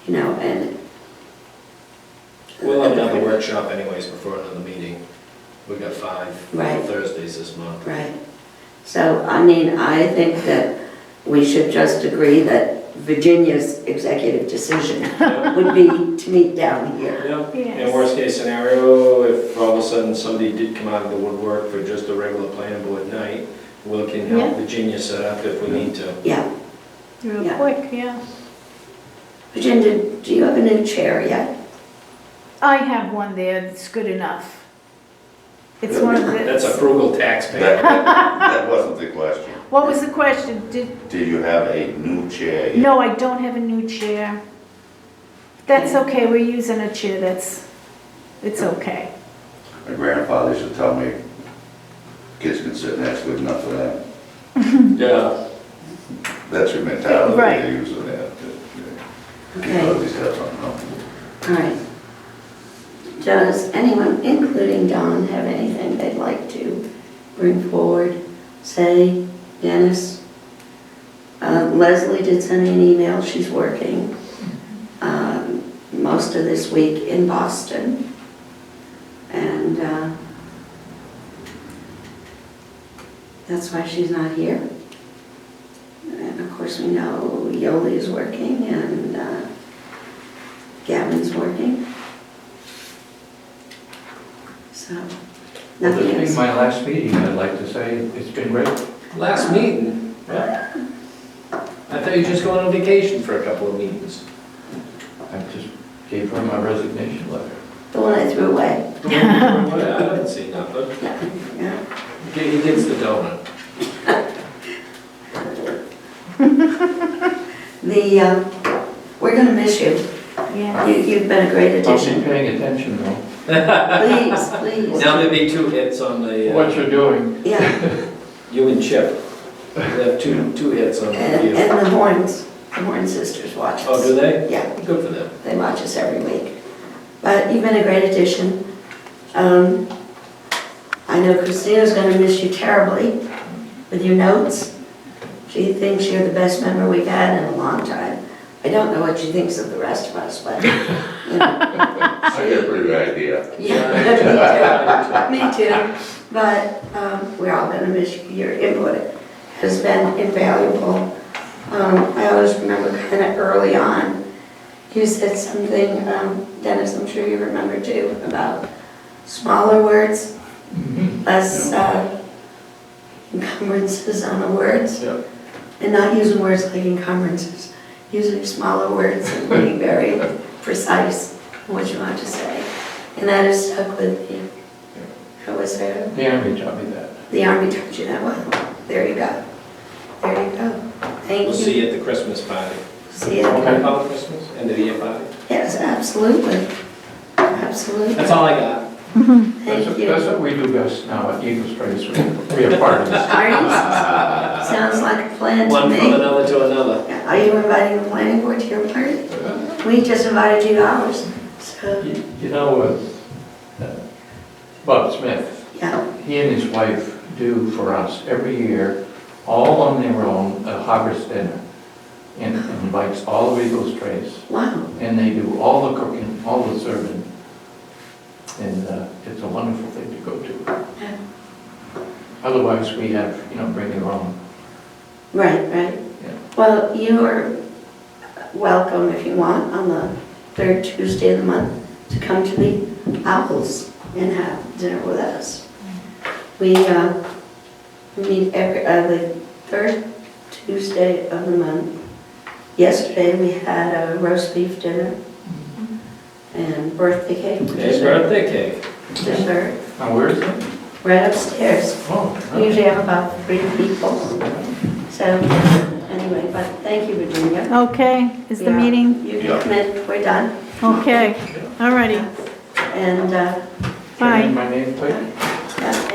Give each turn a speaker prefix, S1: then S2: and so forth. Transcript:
S1: you know, and.
S2: We'll have another workshop anyways before another meeting. We've got five
S1: Right.
S2: Thursdays this month.
S1: Right. So, I mean, I think that we should just agree that Virginia's executive decision would be to meet down here.
S2: Yeah, in
S3: Yes.
S2: worst case scenario, if all of a sudden somebody did come out of the woodwork for just a regular planning board night, we can help
S3: Yeah.
S2: Virginia set up if we need to.
S1: Yeah.
S3: Real
S1: Yeah.
S3: quick, yeah.
S1: Virginia, do you have a new chair yet?
S3: I have one there, it's good enough. It's one of
S2: That's a
S3: the,
S2: frugal
S4: That,
S2: taxpayer.
S4: that, that wasn't the question.
S3: what was the question? Did,
S4: Do you have a new chair? yet?
S3: no, I don't have a new chair. That's okay, we're using a chair that's, it's okay.
S4: My grandfather used to tell me, kids can sit next good enough for them.
S2: Yeah.
S4: That's your mentality
S3: Right.
S4: they use in that.
S1: Okay.
S4: These guys don't know.
S1: All right. Does anyone, including Don, have anything they'd like to bring forward? Say, Dennis? Uh, Leslie did send me an email, she's working um, most of this week in Boston. And uh, that's why she's not here. And of course, we know Yoli is working and uh, Gavin's working. So,
S5: Well,
S1: nothing
S5: This being
S1: else.
S5: my last meeting, I'd like to say it's been great.
S2: Last meeting? I thought you were just going on vacation for a couple of meetings.
S5: I just gave her my resignation letter.
S1: The one I threw away.
S2: Yeah, I didn't see nothing.
S1: Yeah.
S2: Get- He gets the donut.
S1: The, uh, we're gonna miss you.
S3: Yeah.
S1: You, you've been a great
S5: I'll be
S1: addition.
S5: paying attention though,
S1: Please, please.
S2: Oh, Now there'll be two hits on the,
S5: what
S2: uh,
S5: you're doing.
S1: Yeah,
S2: you and Chip. They have two, two hits on
S1: and,
S2: you.
S1: and the Horns, the Horn sisters watch us.
S2: Oh, do they?
S1: Yeah,
S2: Good for them.
S1: they watch us every week. But you've been a great addition. Um, I know Christina's gonna miss you terribly with your notes. She thinks you're the best member we've had in a long time. I don't know what she thinks of the rest of us, but, you know,
S4: I get a pretty good idea.
S1: yeah. Me too, but um, we're all gonna miss you. your input. Has been invaluable. Um, I always remember kind of early on, you said something, um, Dennis, I'm sure you remember too, about smaller words, less uh, encumbrances on the words,
S2: Yeah.
S1: and not using words like encumbrances, using smaller words and being very precise in what you want to say. And that has stuck with me. I was there.
S5: The Army taught me that.
S1: The army taught you that well. There you go. There you go. Thank
S2: We'll
S1: you.
S2: see you at the Christmas party.
S1: See you.
S5: Okay.
S2: About Christmas, end of the year party.
S1: Yes, absolutely. Absolutely.
S2: That's all I got.
S5: That's
S1: Thank
S5: what- That's
S1: you.
S5: what we do best now at Eagle Straits, we we are partners.
S1: Parties? Sounds like a plan to
S2: One from
S1: me.
S2: another to another.
S1: Are you inviting the planning board to your party? We just invited you to ours, so,
S5: You you know, uh, uh, Bob Smith,
S1: yeah.
S5: he and his wife do for us every year, all on their own, a harvest dinner. And invites all of Eagle Straits
S1: Wow,
S5: and they do all the cooking, all the serving. And uh, it's a wonderful thing to go to.
S1: Yeah.
S5: Otherwise, we have, you know, bring your own.
S1: right, right.
S5: Yeah.
S1: Well, you are welcome if you want on the third Tuesday of the month to come to the Owls and have dinner with us. We uh, meet every, uh, the third Tuesday of the month. Yesterday, we had a roast beef dinner and birthday cake. for
S2: It's
S1: dessert-
S2: birthday cake.
S1: Dessert,
S5: Now, where is it?
S1: right upstairs.
S5: Oh,
S1: We
S5: okay.
S1: Usually have about three people. So, anyway, but thank you, Virginia.
S3: Okay, is the
S1: Yeah.
S3: meeting,
S1: You
S4: Yeah.
S1: can commit, we're done.
S3: okay, all righty,
S1: And, uh,
S5: Can I
S3: bye.
S5: have my name, please?